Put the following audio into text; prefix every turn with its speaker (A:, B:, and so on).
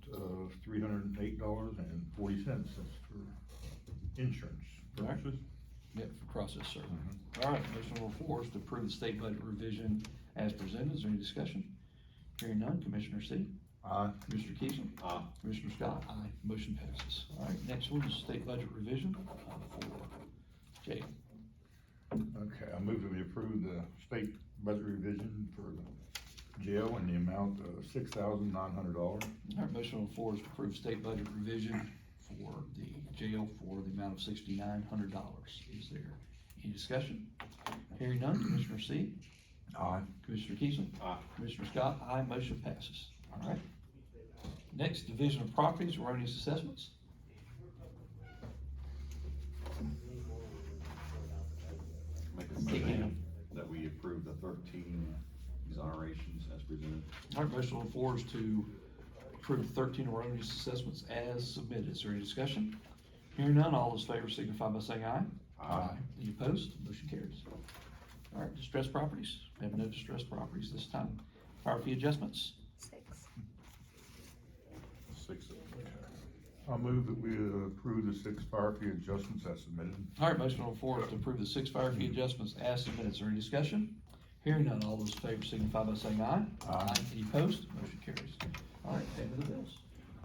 A: eight dollars and forty cents, that's for insurance purposes.
B: Yep, for process serving. All right, motion number four is to approve the state budget revision as presented. Is there any discussion? Hearing none, Commissioner C.
A: Aye.
B: Mr. Keesling. Aye. Commissioner Scott. Aye. Motion passes. All right, next one is state budget revision, item four. Jay,
A: Okay, I move that we approve the state budget revision for the jail in the amount of six thousand nine hundred dollars.
B: all right, motion on the floor is to approve state budget revision for the jail for the amount of sixty-nine hundred dollars. Is there any discussion? Hearing none, Commissioner C.
A: Aye.
B: Commissioner Keesling. Aye. Commissioner Scott, aye, motion passes. All right. Next, division of properties, erroneous assessments.
C: Make a
B: Kick
C: motion
B: in.
C: that we approve the thirteen exonerations as presented.
B: All right, motion on the floor is to approve thirteen erroneous assessments as submitted. Is there any discussion? Hearing none, all those in favor signify by saying aye. Any opposed? Motion carries. All right, distressed properties. We have no distressed properties this time. Fire fee adjustments.
D: Six.
A: Six. I move that we approve the six fire fee adjustments as submitted.
B: All right, motion on the floor is to approve the six fire fee adjustments as submitted. Is there any discussion? Hearing none, all those in favor signify by saying aye.
A: Aye.
B: Any opposed? Motion carries. All right, payment of the bills.